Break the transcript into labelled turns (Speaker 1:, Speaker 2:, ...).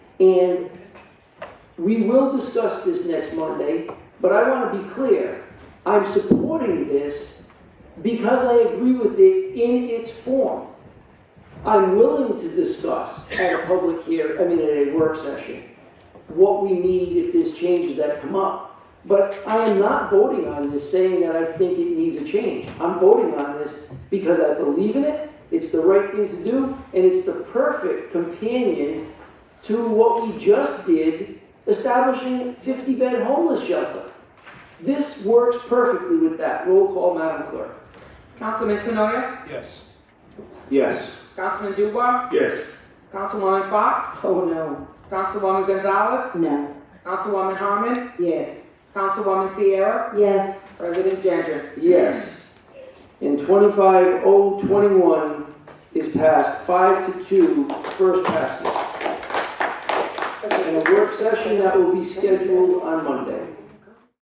Speaker 1: And we will discuss this next Monday, but I want to be clear. I'm supporting this because I agree with it in its form. I'm willing to discuss at a public here, I mean, at a work session, what we need if there's changes that come up. But I am not voting on this saying that I think it needs a change. I'm voting on this because I believe in it, it's the right thing to do, and it's the perfect companion to what we just did, establishing 50-bed homeless shelter. This works perfectly with that. Roll call, Madam Clerk.
Speaker 2: Councilman Canoia,
Speaker 3: Yes.
Speaker 4: Yes.
Speaker 2: Councilman Dubois,
Speaker 4: Yes.
Speaker 2: Councilwoman Fox,
Speaker 1: Oh, no.
Speaker 2: Councilwoman Gonzalez,
Speaker 5: No.
Speaker 2: Councilwoman Harmon,
Speaker 5: Yes.
Speaker 2: Councilwoman Sierra,
Speaker 5: Yes.
Speaker 2: President Jeter.
Speaker 1: Yes. And 25021 is passed, 5 to 2, first passage. And a work session that will be scheduled on Monday.